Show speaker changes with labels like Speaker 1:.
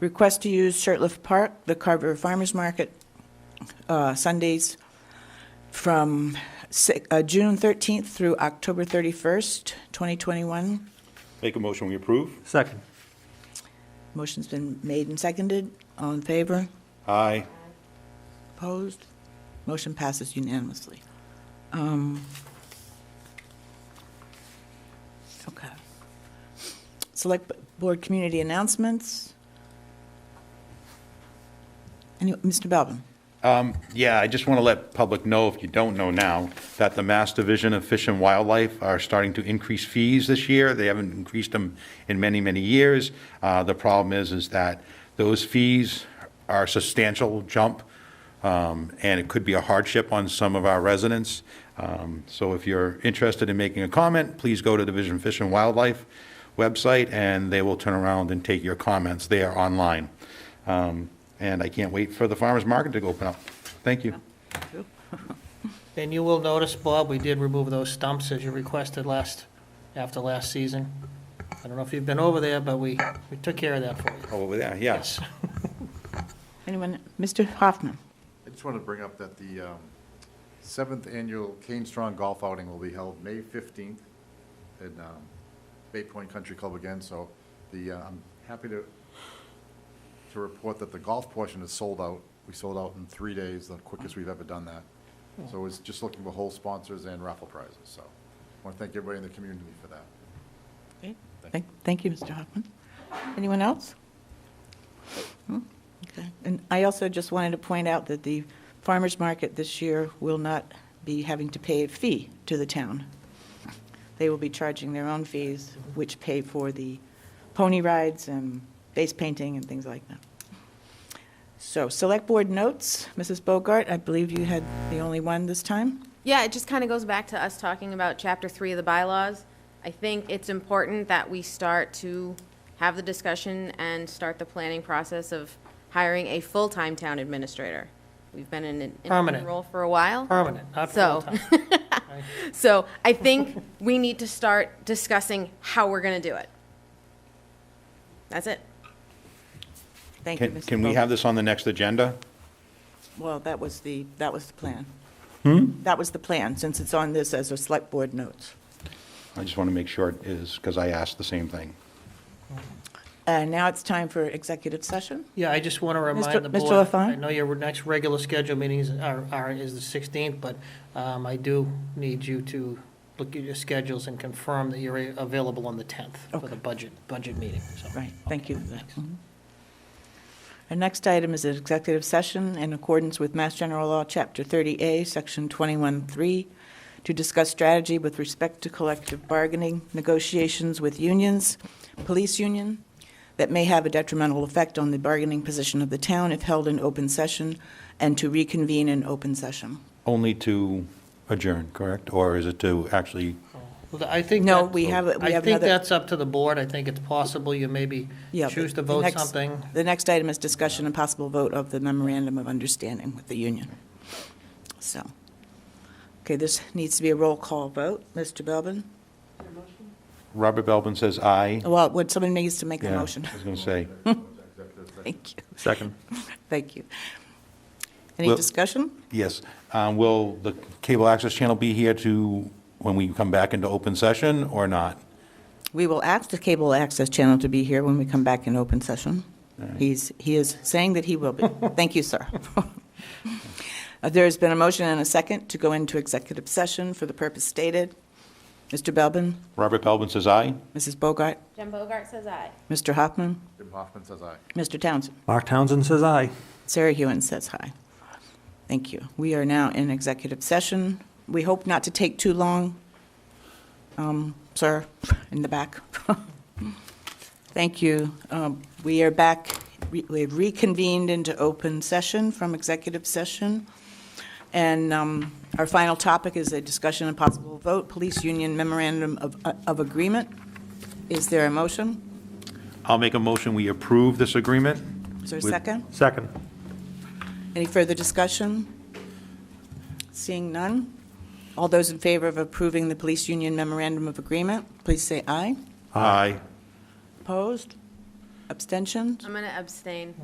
Speaker 1: Request to use Shirtlift Park, the Carver Farmers Market, uh, Sundays from si- uh, June 13th through October 31st, 2021.
Speaker 2: Make a motion, we approve?
Speaker 3: Second.
Speaker 1: Motion's been made and seconded. All in favor?
Speaker 2: Aye.
Speaker 1: Opposed? Motion passes unanimously. Um, Okay. Select Board Community Announcements. Any, Mr. Belvin?
Speaker 2: Um, Yeah, I just want to let public know, if you don't know now, that the Mass Division of Fish and Wildlife are starting to increase fees this year. They haven't increased them in many, many years. Uh, The problem is, is that those fees are a substantial jump, um, and it could be a hardship on some of our residents. Um, So if you're interested in making a comment, please go to Division Fish and Wildlife website, and they will turn around and take your comments there online. Um, And I can't wait for the farmer's market to open up. Thank you.
Speaker 4: And you will notice, Bob, we did remove those stumps as you requested last, after last season. I don't know if you've been over there, but we, we took care of that for you.
Speaker 2: Over there, yes.
Speaker 1: Anyone? Mr. Hoffman?
Speaker 5: I just wanted to bring up that the um, seventh annual Kane Strong Golf Outing will be held May fifteenth in um, Bay Point Country Club again, so the, uh, I'm happy to, to report that the golf portion is sold out. We sold out in three days, the quickest we've ever done that. So it's just looking for whole sponsors and raffle prizes, so I want to thank everybody in the community for that.
Speaker 1: Thank- Thank you, Mr. Hoffman. Anyone else? Hmm, Okay. And I also just wanted to point out that the farmer's market this year will not be having to pay a fee to the town. They will be charging their own fees, which pay for the pony rides and face painting and things like that. So, Select Board notes, Mrs. Bogart, I believe you had the only one this time?
Speaker 6: Yeah, it just kind of goes back to us talking about chapter three of the bylaws. I think it's important that we start to have the discussion and start the planning process of hiring a full-time town administrator. We've been in an interim
Speaker 4: Permanent.
Speaker 6: role for a while.
Speaker 4: Permanent, not
Speaker 6: So-
Speaker 4: full-time.
Speaker 6: So I think we need to start discussing how we're going to do it. That's it.
Speaker 1: Thank you,
Speaker 2: Can
Speaker 1: Mrs.
Speaker 2: can we
Speaker 1: Bogart.
Speaker 2: have this on the next agenda?
Speaker 1: Well, that was the, that was the plan. That was the plan, since it's on this as a select board notes.
Speaker 2: I just want to make sure it is, because I asked the same thing.
Speaker 1: And now it's time for executive session.
Speaker 4: Yeah, I just want to
Speaker 1: Mr.
Speaker 4: remind the
Speaker 1: Mr.
Speaker 4: board.
Speaker 1: Lafond?
Speaker 4: I know your next regular schedule meetings are, are, is the 16th, but um, I do need you to look at your schedules and confirm that you're available on the 10th for
Speaker 1: Okay.
Speaker 4: the budget, budget meeting, so.
Speaker 1: Right, thank you. Mhm. Our next item is an executive session in accordance with Mass General Law, Chapter 30A, Section 21-3, to discuss strategy with respect to collective bargaining, negotiations with unions, police union, that may have a detrimental effect on the bargaining position of the town if held in open session, and to reconvene in open session.
Speaker 2: Only to adjourn, correct? Or is it to actually,
Speaker 4: Well, I think.
Speaker 1: No,
Speaker 4: that-
Speaker 1: we have- we
Speaker 4: I
Speaker 1: have
Speaker 4: think
Speaker 1: another-
Speaker 4: that's up to the board. I think it's possible you maybe
Speaker 1: Yeah, but
Speaker 4: choose to
Speaker 1: the
Speaker 4: vote
Speaker 1: next-
Speaker 4: something.
Speaker 1: The next item is discussion and possible vote of the memorandum of understanding with the union. So, okay, this needs to be a roll call vote. Mr. Belbin?
Speaker 2: Robert Belvin says aye.
Speaker 1: Well, would someone needs to make a
Speaker 2: Yeah,
Speaker 1: Oh, motion?
Speaker 2: I was going to say,
Speaker 1: Thank you,
Speaker 3: Second.
Speaker 1: thank you. Any
Speaker 2: Well-
Speaker 1: discussion?
Speaker 2: yes. Uh, Will the cable access channel be here to, when we come back into open session or not?
Speaker 1: We will ask the cable access channel to be here when we come back in open session. He's, he is saying that he will be. Thank you, sir. Uh, There's been a motion and a second to go into executive session for the purpose stated. Mr. Belbin?
Speaker 2: Robert Belvin says aye.
Speaker 1: Mrs. Bogart?
Speaker 6: Jen Bogart says aye.
Speaker 1: Mr. Hoffman?
Speaker 5: Jim Hoffman says aye.
Speaker 1: Mr. Townsend?
Speaker 3: Mark Townsend says aye.
Speaker 1: Sarah Hewen says hi. Thank you. We are now in executive session. We hope not to take too long, um, sir, in the back. Thank you. Um, We are back, re- we have reconvened into open session from executive session. And um, our final topic is a discussion and possible vote, police union memorandum of of agreement. Is there a motion?
Speaker 2: I'll make a motion, we approve this agreement.
Speaker 1: Is there a
Speaker 2: With-
Speaker 1: second?
Speaker 3: Second.
Speaker 1: Any further discussion? Seeing none? All those in favor of approving the police union memorandum of agreement, please say aye.
Speaker 2: Aye.
Speaker 1: Opposed? Abstentions?
Speaker 6: I'm going to abstain.